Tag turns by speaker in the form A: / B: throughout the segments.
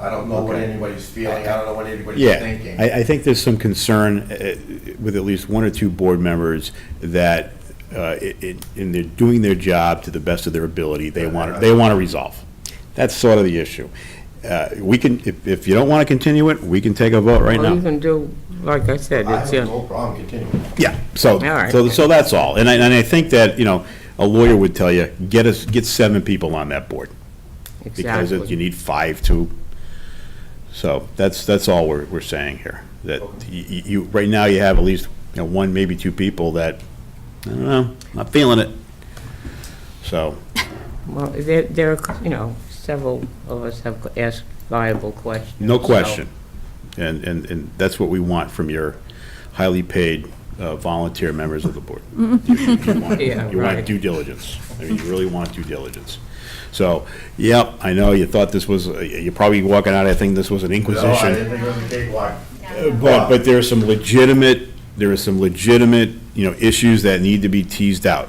A: I don't know what
B: Okay.
A: anybody's feeling, I don't know what anybody's
B: Yeah,
A: thinking.
B: I, I think there's some concern uh, with at least one or two board members that uh, it, it- in their, doing their job to the best of their ability, they want, they want to resolve. That's sort of the issue. Uh, We can, if, if you don't want to continue it, we can take a vote right
C: Or you
B: now.
C: can do, like I said,
A: I
C: it's,
A: have no
C: your-
A: problem continuing.
B: Yeah, so,
C: right.
B: so, so that's all. And I, and I think that, you know, a lawyer would tell you, get us, get seven people on that board. Because it- you
C: exactly.
B: need five to, so that's, that's all we're, we're saying here. That you, you, right now you have at least, you know, one, maybe two people that, I don't know, not feeling it. So,
C: Well, there, there are, you know, several of us have asked viable questions.
B: no
C: so-
B: question. And, and, and that's what we want from your highly paid uh, volunteer members of the board. You- you want-
C: Mm-hmm. Yeah,
B: You want
C: right.
B: due diligence. I mean, you really want due diligence. So, yep, I know you thought this was, you're probably walking out, I think this was an
A: No,
B: inquisition.
A: I didn't think it was a cakewalk.
B: But, but there are some legitimate, there are some legitimate, you know, issues that need to be teased out.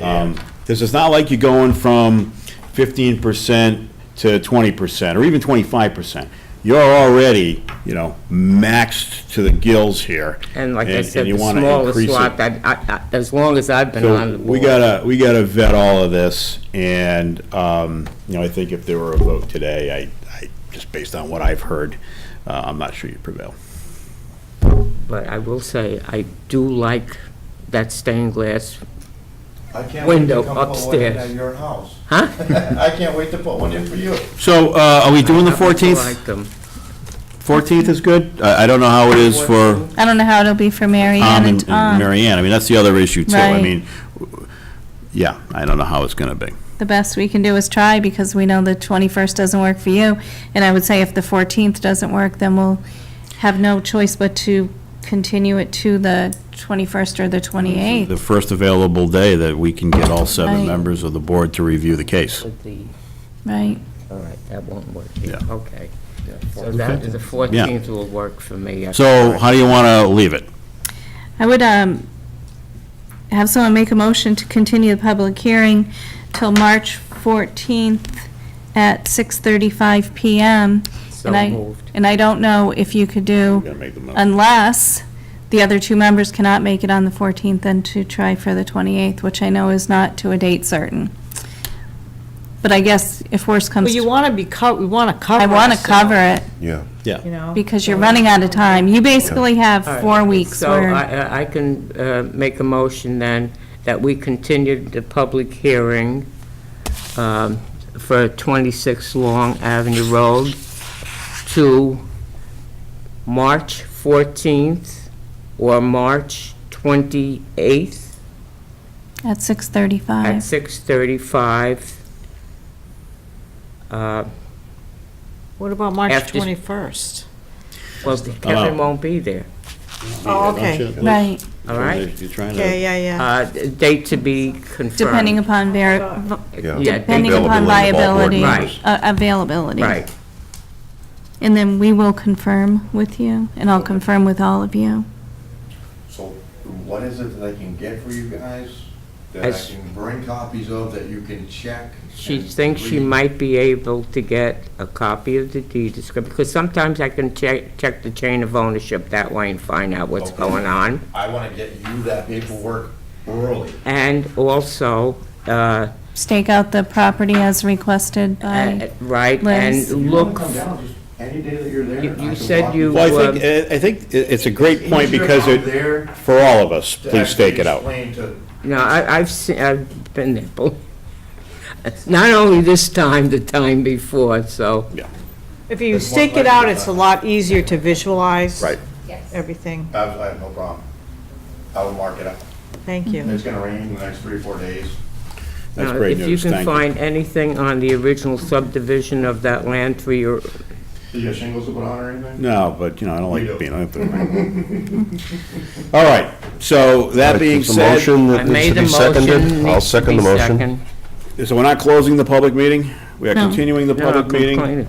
B: Um, This is not like you're going from fifteen percent to twenty percent, or even twenty-five percent. You're already, you know, maxed to the gills here.
C: And like I
B: and
C: said,
B: you
C: the
B: wanna
C: smallest
B: increase it.
C: lot, that, I- I- as long as I've been on
B: So
C: the board.
B: we gotta, we gotta vet all of this, and, um, you know, I think if there were a vote today, I, I, just based on what I've heard, uh, I'm not sure you'd prevail.
C: But I will say, I do like that stained glass,
A: I can't wait to
C: Window
A: come put one in
C: upstairs.
A: at your house.
C: huh?
A: I can't wait to put one in for you.
B: So, uh, are we doing the
C: I also
B: fourteenth?
C: like them.
B: 14th is good? I, I don't know how it is for
D: I don't know how it'll be for Mary
B: Tom
D: Ann
B: and
D: and um,
B: and
D: Tom.
B: Mary Ann. I mean, that's the other issue too. I
D: Right.
B: mean, w- yeah, I don't know how it's gonna be.
D: The best we can do is try because we know the 21st doesn't work for you. And I would say if the 14th doesn't work, then we'll have no choice but to continue it to the 21st or the 28th.
B: The first available day that we can get all seven
D: Right.
B: members of the board to review the case.
C: With the-
D: Right.
C: All right, that won't work,
B: Yeah.
C: okay. So that, the 14th will work for me. I-
B: So how do you wanna leave it?
D: I would um, have someone make a motion to continue the public hearing till March 14th at 6:35 PM.
C: So
D: And I
C: moved.
D: And I don't know if you could do. unless the other two members cannot make it on the 14th and to try for the 28th, which I know is not to a date certain. But I guess if worse comes,
E: Well, you
D: to-
E: want to be, co- we want to cover
D: I want to
E: ourselves,
D: cover it
A: Yeah.
E: You know?
D: because you're running out of time. You basically have
C: Oh. All right,
D: four weeks
C: So I-
D: where,
C: I, I can uh, make a motion then that we continue the public hearing um, for 26 Long Avenue Road to March 14th or March 28th
D: at
C: at
D: 6:35.
C: 6:35. Uh,
E: What about March
C: After-
E: 21st?
C: Well, Kevin won't be there,
E: Oh, okay.
D: Right,
C: all right?
B: You're trying
E: Yeah, yeah, yeah.
C: Uh, Date to be confirmed.
D: depending upon, ver-
C: Yeah, date-
D: depending upon
C: board
D: viability,
C: members.
D: uh, availability.
C: Right.
D: And then we will confirm with you, and I'll confirm with all of you.
A: So what is it that I can get for you guys? That I
C: As-
A: can bring copies of that you can check?
C: She
A: and
C: thinks she
A: read?
C: might be able to get a copy of the deed description, because sometimes I can check, check the chain of ownership that way and find out what's
A: Okay.
C: going on.
A: I want to get you that paperwork early.
C: And also, uh,
D: Stake out the property as requested by.
C: uh, right,
D: Liz.
C: and
A: You wanna
C: look,
A: come down just Any day that you're there.
C: You-
A: I
C: you
A: can
C: said
A: walk
C: you-
B: Well, I think, I- I think it- it's a great point because
A: I'm
B: it,
A: there
B: for all of us,
A: to
B: please
A: actually
B: stake it out.
A: explain to-
C: no, I, I've seen, I've been there, bel- not only this time, the time before, so,
E: If you
A: There's one
E: stake it
A: leg
E: out,
A: to
E: it's a
A: cover.
E: lot easier to visualize.
B: Right.
E: Everything.
A: I have, I have no problem. I will mark it up.
E: Thank you.
A: It's gonna rain in the next three, or four days.
B: That's
C: uh,
B: great
C: if you
B: news,
C: can
B: thank you.
C: find anything on the original subdivision of that land for your,
A: Do you have shingles to put on or anything?
B: No, but, you know, I don't
A: We
B: like
A: do.
B: being, I don't like the- All right, so that being
F: It's a
B: said.
F: motion
C: I
F: that needs to
C: made a
F: be
C: motion.
F: seconded. I'll
C: needs to
F: second the
C: be
F: motion.
C: second.
B: So we're not closing the public meeting? We are
D: No.
B: continuing the
C: No,
B: public meeting?
C: complaining.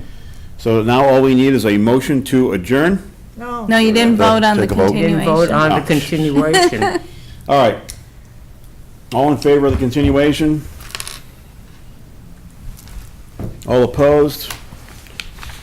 B: So now all we need is a motion to adjourn?
E: No.
D: No, you didn't vote on the
F: Take a vote.
C: Didn't vote
D: continuation.
C: on the
B: Oh.
C: continuation.
B: All right. All in favor of the continuation? All opposed?